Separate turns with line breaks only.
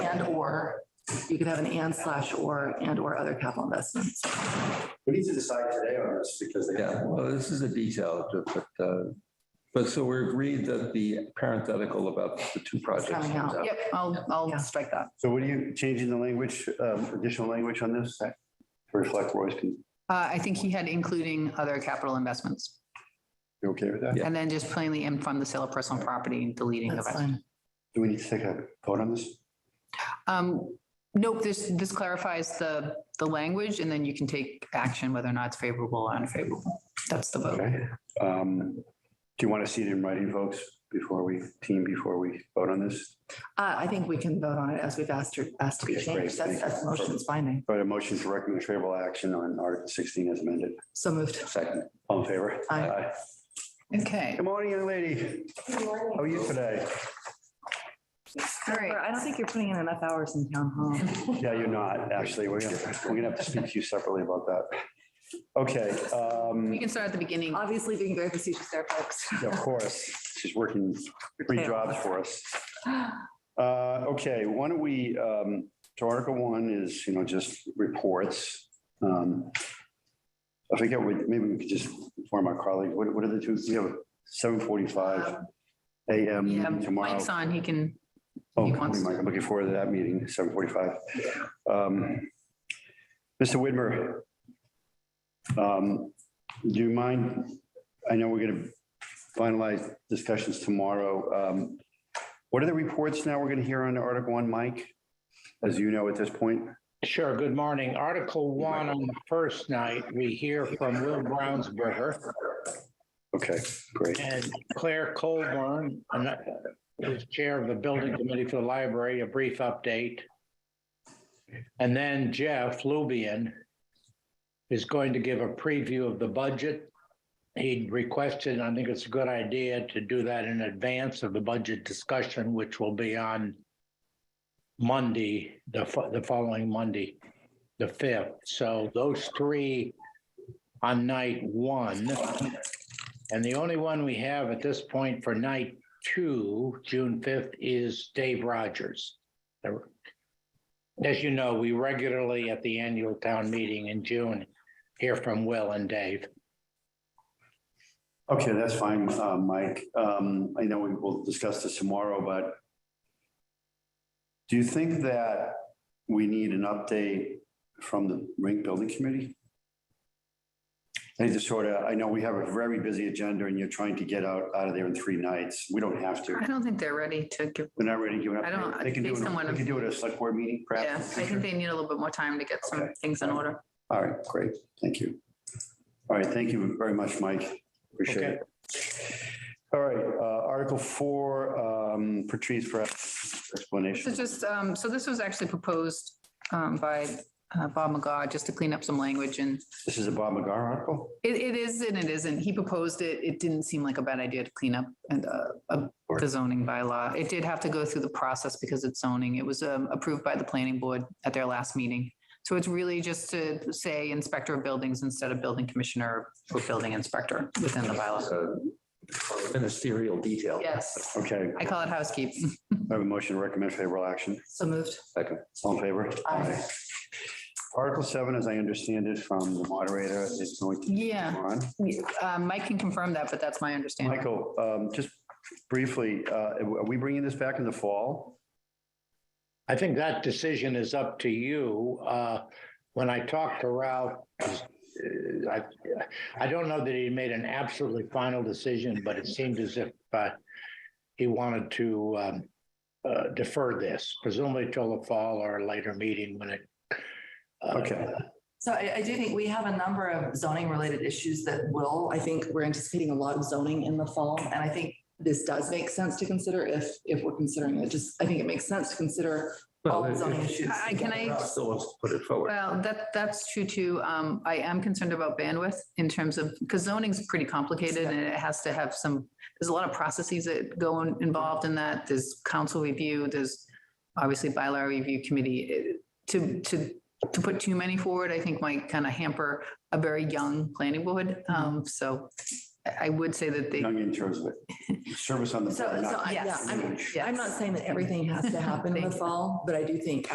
or, you could have an and slash or, and or other capital investments.
We need to decide today on this because they
Yeah,
have.
well, this is a detail, but, uh, but so we're agreed that the parenthetical about the two projects.
Coming
comes
out.
out.
Yep, I'll, I'll strike that.
So what are you changing the language, um, additional language on this that- to reflect Roy's? con-
Uh, I think he had including other capital investments
You okay with that?
Yeah.
and then just plainly and fund the sale of personal property and deleting the
That's
rest.
fine.
Do we need to take a vote on this?
Um, nope, this, this clarifies the, the language and then you can take action whether or not it's favorable or unfavorable. That's the vote.
Okay. Um, Do you want to see it in writing, folks, before we, team, before we vote on this?
Uh, I think we can vote on it as we've asked, her- asked to be
Okay, great.
changed. That's, that's motion's binding.
But a motion to recommend favorable action on Article 16 as amended.
So moved.
Second.
All in favor?
Aye.
Okay.
Good morning, young lady. How are you today?
All right.
I don't think you're putting in enough hours in town hall.
Yeah, you're not, actually. We're gonna, we're gonna have to speak to you separately about that. Okay, um,
We can start at the beginning.
Obviously being very facetious there, folks.
yeah, of course, she's working three jobs for us. Uh, okay, why don't we, um, so Article One is, you know, just reports. Um, I forget, what- maybe we could just inform our colleagues, what, what are the two, we have seven forty-five
Yeah,
AM tomorrow.
Mike's on, he can,
Oh,
He
good
wants
morning, Mike. I'm looking forward to that meeting, seven forty-five. Um, Mr. Whitmer, um, do you mind, I know we're gonna finalize discussions tomorrow. Um, What are the reports now we're gonna hear on Article One, Mike? As you know at this point,
Sure, good morning. Article one on the first night, we hear from Will Brownsberger
okay, great.
and Claire Colburn, and that- who's chair of the building committee for the library, a brief update. And then Jeff Lubian is going to give a preview of the budget. He requested, I think it's a good idea to do that in advance of the budget discussion, which will be on Monday, the, fo- the following Monday, the fifth. So those three on night one. And the only one we have at this point for night two, June fifth, is Dave Rogers. As you know, we regularly at the annual town meeting in June hear from Will and Dave.
Okay, that's fine, uh, Mike. Um, I know we will discuss this tomorrow, but do you think that we need an update from the rink building committee? I just sort of, I know we have a very busy agenda and you're trying to get out, out of there in three nights. We don't have to.
I don't think they're ready to give,
They're not ready to give an
I don't-
update. They can do
based on
it,
what
they
I'm-
can do it at a select board meeting
yeah, I
perhaps. in the
think
future.
they need a little bit more time to get some
Okay.
things in order.
All right, great. Thank you. All right, thank you very much, Mike. Appreciate
Okay.
it. All right, uh, Article Four, um, Patrice for explanation.
So just, um, so this was actually proposed, um, by, uh, Bob McGaw, just to clean up some language and
This is a Bob McGar article?
It, it is and it isn't. He proposed it. It didn't seem like a bad idea to clean up and, uh, uh, the zoning bylaw. It did have to go through the process because it's zoning. It was, um, approved by the planning board at their last meeting. So it's really just to say inspector of buildings instead of building commissioner or building inspector within the bylaw.
Uh, Ministerial detail.
Yes,
Okay,
I call it housekeeping.
I have a motion to recommend favorable action.
So moved.
Second.
All in favor?
Aye.
Article Seven, as I understand it from the moderator, is going to.
Yeah,
Ron?
uh, Mike can confirm that, but that's my understanding.
Michael, um, just briefly, uh, are we bringing this back in the fall?
I think that decision is up to you. Uh, When I talked to Ralph, uh, I, I don't know that he made an absolutely final decision, but it seemed as if uh, he wanted to um, uh, defer this, presumably till the fall or a later meeting when it. uh,
Okay.
So I, I do think we have a number of zoning related issues that will, I think we're anticipating a lot of zoning in the fall. And I think this does make sense to consider if, if we're considering it. Just, I think it makes sense to consider all the zoning issues.
I- can I-
Still wants to put it forward.
Well, that, that's true too. Um, I am concerned about bandwidth in terms of, because zoning's pretty complicated and it has to have some, there's a lot of processes that go in- involved in that. There's council review, there's obviously bylaw review committee. Eh, To, to, to put too many forward, I think might kind of hamper a very young planning board. Um, so I I would say that they,
Young in terms of it. Service on the.
So, so I, yeah, I'm, I'm not saying that everything has to happen in the
Thank you.
fall, but I do think